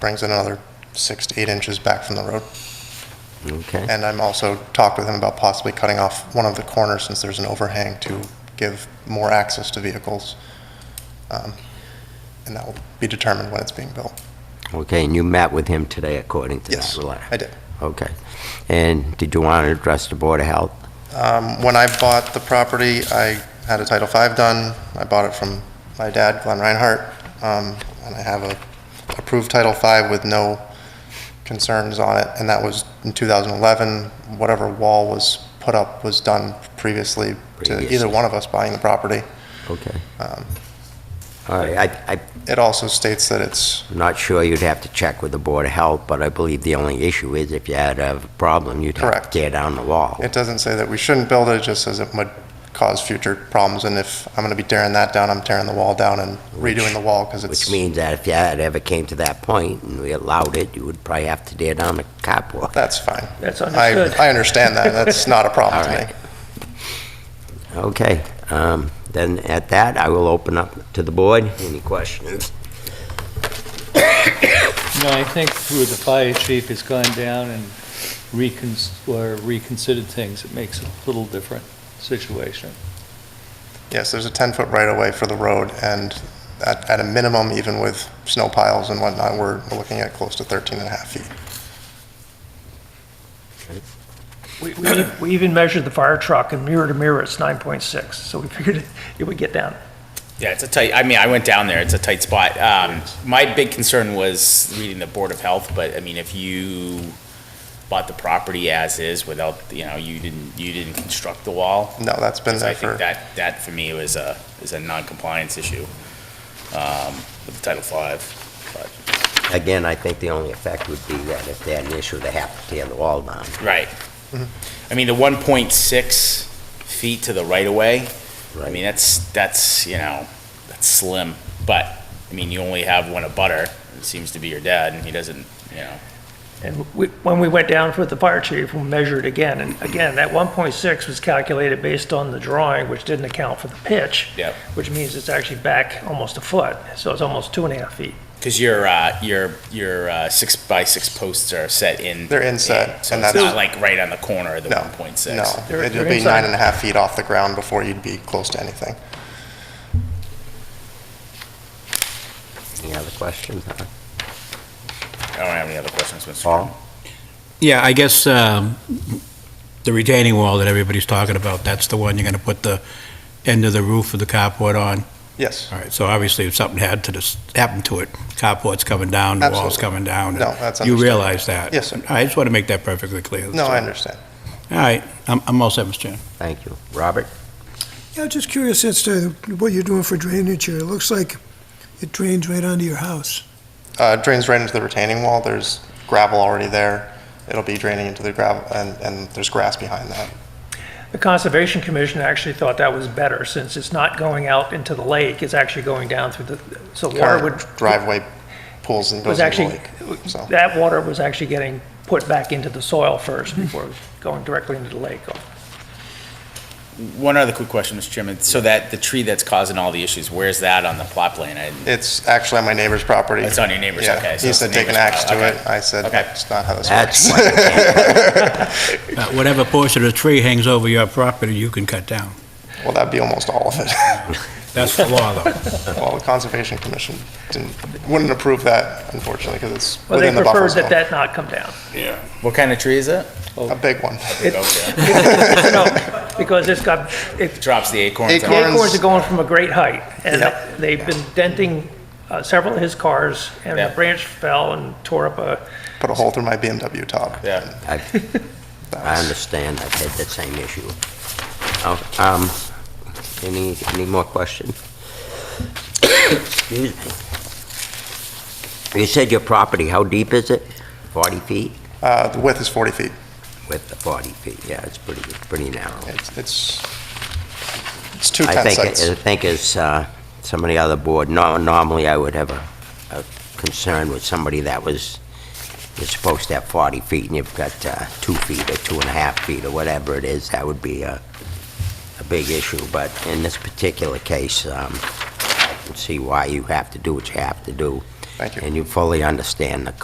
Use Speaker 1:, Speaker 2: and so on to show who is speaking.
Speaker 1: brings it another six to eight inches back from the road.
Speaker 2: Okay,
Speaker 1: And I'm also talked with him about possibly cutting off one of the corners since there's an overhang to give more access to vehicles. Um, And that will be determined when it's being built.
Speaker 2: okay, and you met with him today according to that
Speaker 1: Yes,
Speaker 2: letter?
Speaker 1: I did.
Speaker 2: Okay. And did you want to address the Board of Health?
Speaker 1: Um, When I bought the property, I had a Title V done. I bought it from my dad, Glenn Reinhardt, um, and I have a approved Title V with no concerns on it, and that was in 2011. Whatever wall was put up was done previously to either
Speaker 2: Previously.
Speaker 1: one of us buying the property.
Speaker 2: Okay.
Speaker 1: Um,
Speaker 2: All right, I, I'm
Speaker 1: It also states that it's,
Speaker 2: not sure, you'd have to check with the Board of Health, but I believe the only issue is if you had a problem, you'd have to
Speaker 1: Correct.
Speaker 2: tear down the wall.
Speaker 1: it doesn't say that we shouldn't build it, it just says it would cause future problems, and if I'm going to be tearing that down, I'm tearing the wall down and redoing the wall, because it's...
Speaker 2: Which means that if you had ever came to that point and we allowed it, you would probably have to tear down the carport.
Speaker 1: That's fine.
Speaker 3: That's
Speaker 1: I,
Speaker 3: understood.
Speaker 1: I understand that, that's not a problem to me.
Speaker 2: Okay, um, then at that, I will open up to the board. Any questions?
Speaker 3: No, I think through the fire chief has gone down and recons, or reconsidered things, it makes it a little different situation.
Speaker 1: Yes, there's a 10-foot right-of-way for the road, and at, at a minimum, even with snow piles and whatnot, we're we're looking at close to 13 and a half feet.
Speaker 4: We, we, we even measured the fire truck and mirror to mirror, it's 9.6, so we figured it would get down.
Speaker 5: Yeah, it's a tight, I mean, I went down there, it's a tight spot. Um, my big concern was reading the Board of Health, but I mean, if you bought the property as is without, you know, you didn't, you didn't construct the wall.
Speaker 1: No, that's been
Speaker 5: So I
Speaker 1: there
Speaker 5: think
Speaker 1: for,
Speaker 5: that, that for me was a, is a non-compliance issue, um, with the Title Five.
Speaker 2: Again, I think the only effect would be that if they had an issue, they have to tear the wall down.
Speaker 5: Right. I mean, the one point six feet to the right of way, I mean, that's, that's, you know, that's slim, but, I mean, you only have one abutter, it seems to be your dad, and he doesn't, you know.
Speaker 4: And we, when we went down with the fire chief, we measured again, and again, that 1.6 was calculated based on the drawing, which didn't account for the pitch.
Speaker 5: Yeah.
Speaker 4: Which means it's actually back almost a foot, so it's almost two and a half feet.
Speaker 5: Because your, uh, your, your uh, six by six posts are set in.
Speaker 1: They're inset,
Speaker 5: in, So
Speaker 1: and
Speaker 5: it's
Speaker 1: that's-
Speaker 5: not like right on the corner of the
Speaker 1: No,
Speaker 5: one point
Speaker 1: no,
Speaker 5: six.
Speaker 4: They're-
Speaker 1: it'd
Speaker 4: they're
Speaker 1: be
Speaker 4: inside.
Speaker 1: nine and a half feet off the ground before you'd be close to anything.
Speaker 2: Any other questions?
Speaker 5: I don't have any other questions, Mr.
Speaker 2: Paul?
Speaker 5: Chairman.
Speaker 6: Yeah, I guess um, the retaining wall that everybody's talking about, that's the one you're going to put the end of the roof of the carport on?
Speaker 1: Yes,
Speaker 6: All right, so obviously if something had to, this- happened to it, carport's coming down, the wall's
Speaker 1: Absolutely.
Speaker 6: coming down.
Speaker 1: No, that's
Speaker 6: You
Speaker 1: understood.
Speaker 6: realize that?
Speaker 1: Yes, sir.
Speaker 6: I just want to make that perfectly clear.
Speaker 1: no, I understand.
Speaker 6: All right, I'm I'm all set, Mr. Chairman.
Speaker 2: Thank you. Robert?
Speaker 7: Yeah, just curious as to what you're doing for drainage here. It looks like it drains right onto your house.
Speaker 1: Uh, it drains right into the retaining wall, there's gravel already there, it'll be draining into the gravel, and, and there's grass behind that.
Speaker 4: The Conservation Commission actually thought that was better, since it's not going out into the lake, it's actually going down through the, so water would.
Speaker 1: Current driveway pools and
Speaker 4: Was
Speaker 1: goes into the
Speaker 4: actually,
Speaker 1: lake, so.
Speaker 4: that water was actually getting put back into the soil first
Speaker 1: Mm-hmm.
Speaker 4: before going directly into the lake.
Speaker 5: One other quick question, Mr. Chairman. So that, the tree that's causing all the issues, where's that on the plot plan? I didn't-
Speaker 1: It's actually on my neighbor's property.
Speaker 5: It's on your neighbor's,
Speaker 1: Yeah,
Speaker 5: okay, so
Speaker 1: He
Speaker 5: it's
Speaker 1: said
Speaker 5: the
Speaker 1: take an
Speaker 5: neighbor's
Speaker 1: axe to
Speaker 5: pro-
Speaker 1: it. I said,
Speaker 5: Okay.
Speaker 1: that's not how this
Speaker 2: That's
Speaker 1: works.
Speaker 2: what I can't-
Speaker 6: Uh, Whatever portion of the tree hangs over your property, you can cut down.
Speaker 1: Well, that'd be almost all of it.
Speaker 6: That's the law, though.
Speaker 1: Well, the Conservation Commission didn't, wouldn't approve that unfortunately, because it's
Speaker 4: Well, they
Speaker 1: within the buffer
Speaker 4: preferred
Speaker 1: zone.
Speaker 4: that that not come down.
Speaker 5: What kind of tree is it?
Speaker 1: A big one.
Speaker 5: It
Speaker 4: No, because it's got, it-
Speaker 5: drops the acorns.
Speaker 4: the
Speaker 5: out.
Speaker 4: acorns are going from a great height, and
Speaker 1: Yeah.
Speaker 4: they've been denting uh, several of his cars, and
Speaker 5: Yeah.
Speaker 4: a branch fell and tore up a,
Speaker 1: Put a hole through my BMW top.
Speaker 5: Yeah.
Speaker 2: I've- I understand, I've had that same issue. Oh, Um, any, any more questions? Excuse me. You said your property, how deep is it? 40 feet?
Speaker 1: Uh, the width is 40 feet.
Speaker 2: With the 40 feet, yeah, it's pretty, it's pretty narrow.
Speaker 1: It's, it's, it's two
Speaker 2: I
Speaker 1: tent
Speaker 2: think,
Speaker 1: sites.
Speaker 2: I think as uh, some of the other board, no- normally I would have a a concern with somebody that was, you're supposed to have 40 feet and you've got uh, two feet or two and a half feet or whatever it is, that would be a, a big issue. But in this particular case, um, I can see why you have to do what you have to do.
Speaker 1: Thank you.
Speaker 2: and you fully understand the